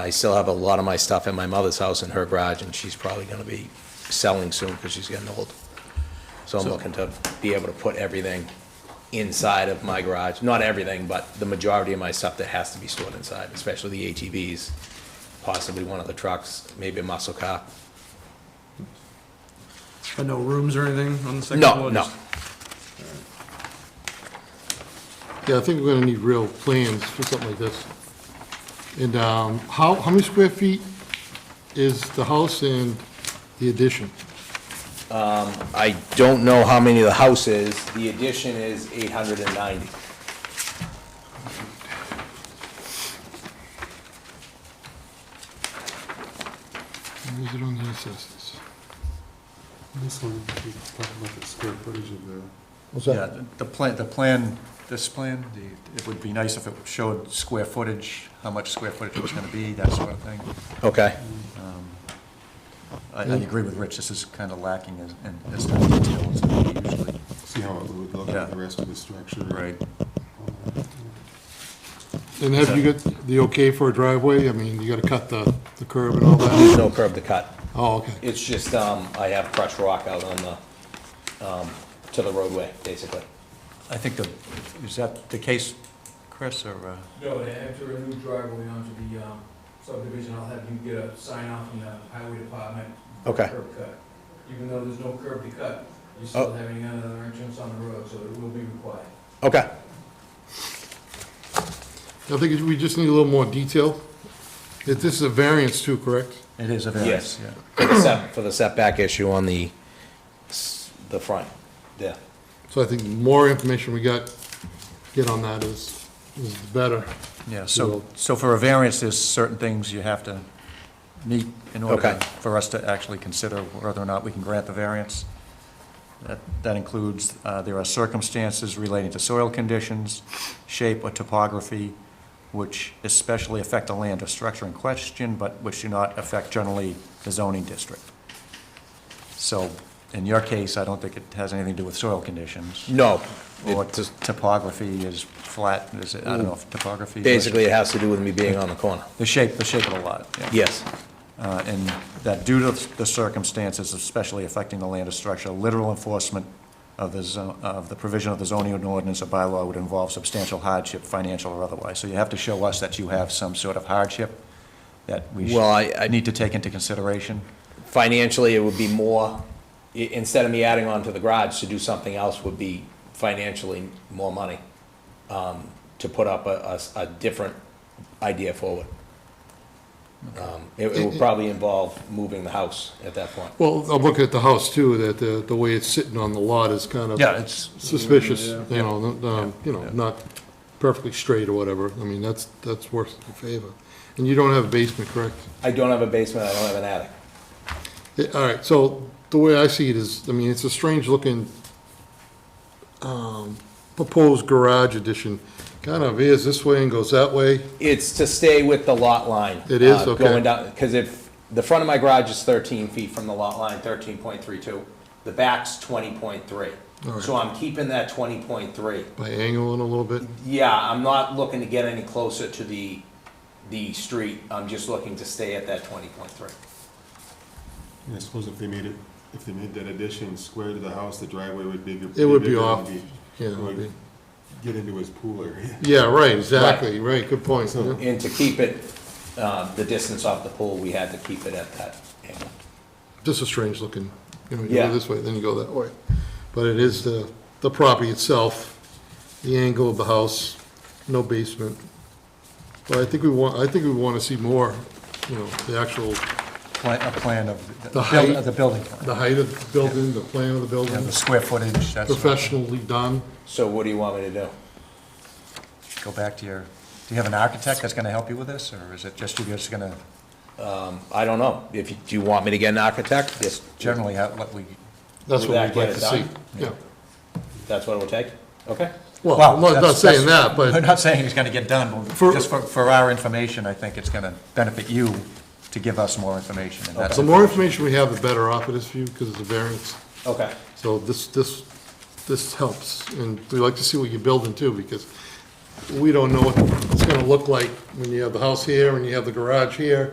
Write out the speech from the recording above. I still have a lot of my stuff at my mother's house in her garage, and she's probably going to be selling soon because she's getting old. So I'm looking to be able to put everything inside of my garage, not everything, but the majority of my stuff that has to be stored inside, especially the ATVs, possibly one of the trucks, maybe a muscle car. But no rooms or anything on the second No, floor? no, just- Yeah, I think we're gonna need real plans for something like this. And um, how, how many square feet is the house and the addition? I don't know how many the house is. The addition is 890. Where is it on the assessors? This one, you can talk about the square footage of the, What's Yeah, the- the plan, the plan, this plan, the- it would be nice if it showed square footage, how much square footage it was gonna be, that sort of thing. Okay. I, I agree with Rich, this is kind of lacking as, in this kind of detail as we usually. see how it would look Yeah. with the rest of the structure. And have you got the okay for a driveway? I mean, you gotta cut the, the curb and all that? No curb to cut. Oh, okay. It's just, um, I have crushed rock out on the, um, to the roadway, basically. I think the, is that the case, Chris, or, uh, No, and after a new driveway onto the um, subdivision, I'll have you get a sign off from the highway department. Okay. Curb cut. Even though there's no curb to cut, you're still having another entrance on the road, so it will be required. Okay. I think we just need a little more detail. If This is a variance too, correct? it is a variance, yeah. Except for the setback issue on the, s- the front, yeah. So I think the more information we got, get on that is, is better. Yeah, so, so for a variance, there's certain things you have to meet in order Okay. to- for us to actually consider whether or not we can grant the variance. That that includes, uh, there are circumstances relating to soil conditions, shape or topography, which especially affect the land or structure in question, but which do not affect generally the zoning district. So in your case, I don't think it has anything to do with soil conditions. No, Or it just, topography is flat, is it, I don't know if topography. is- basically it has to do with me being on the corner. the shape, the shape of the lot, yeah. Yes, Uh, And that due to the circumstances especially affecting the land or structure, literal enforcement of the, zo- of the provision of the zoning ordinance or bylaw would involve substantial hardship, financial or otherwise. So you have to show us that you have some sort of hardship that we Well, I- I- should, need to take into consideration. financially, it would be more, i- instead of me adding on to the garage, to do something else would be financially more money, um, to put up a, a s- a different idea forward. Um, It, it would probably involve moving the house at that point. Well, I'm looking at the house too, that uh, the, the way it's sitting on the lot is kind of. it's. suspicious, you know, n- um, you know, not perfectly straight or whatever. I mean, that's, that's worse than a favor. And you don't have a basement, correct? I don't have a basement, I don't have an attic. Yeah, All right, so the way I see it is, I mean, it's a strange looking um, proposed garage addition. Kind of veers this way and goes that way. It's to stay with the lot line. It is? uh, Okay. Going down, because if, the front of my garage is thirteen feet from the lot line, thirteen point three two, the back's twenty point three. Alright. So I'm keeping that twenty point three. By angling a little bit, Yeah, I'm not looking to get any closer to the, the street, I'm just looking to stay at that twenty point three. And I suppose if they made it, if they made that addition square to the house, the driveway would be. It would be bigger and off, yeah, it would be- Get into his pool area. Yeah, right, exactly, right, good point. So- yeah. And to keep it, uh, the distance off the pool, we had to keep it at that angle. Just a strange looking, you know, you Yeah. go this way, then you go that way. But it is the, the property itself, the angle of the house, no basement. But I think we want, I think we want to see more, you know, the actual, A plan of, the- The buil- height. of the building, the height of the building, the plan of the you know, building, the square footage, that's, professionally done. So what do you want me to do? go back to your, do you have an architect that's gonna help you with this, or is it just you guys gonna, I don't know, if, you- do you want me to get an architect? Yes. generally, how, what we, That's Would that what we'd like get to it see, done? yeah. That's what it will take? Okay. Well, Well, I'm not- not that's- saying that's- that, We're but, not saying it's gonna get done, but For- just for, for our information, I think it's gonna benefit you to give us more information, and that's. the more information we have, the better off it is for you, because it's a variance. Okay. So this, this, this helps, and we like to see what you're building too, because we don't know what it's gonna look like when you have the house here and you have the garage here.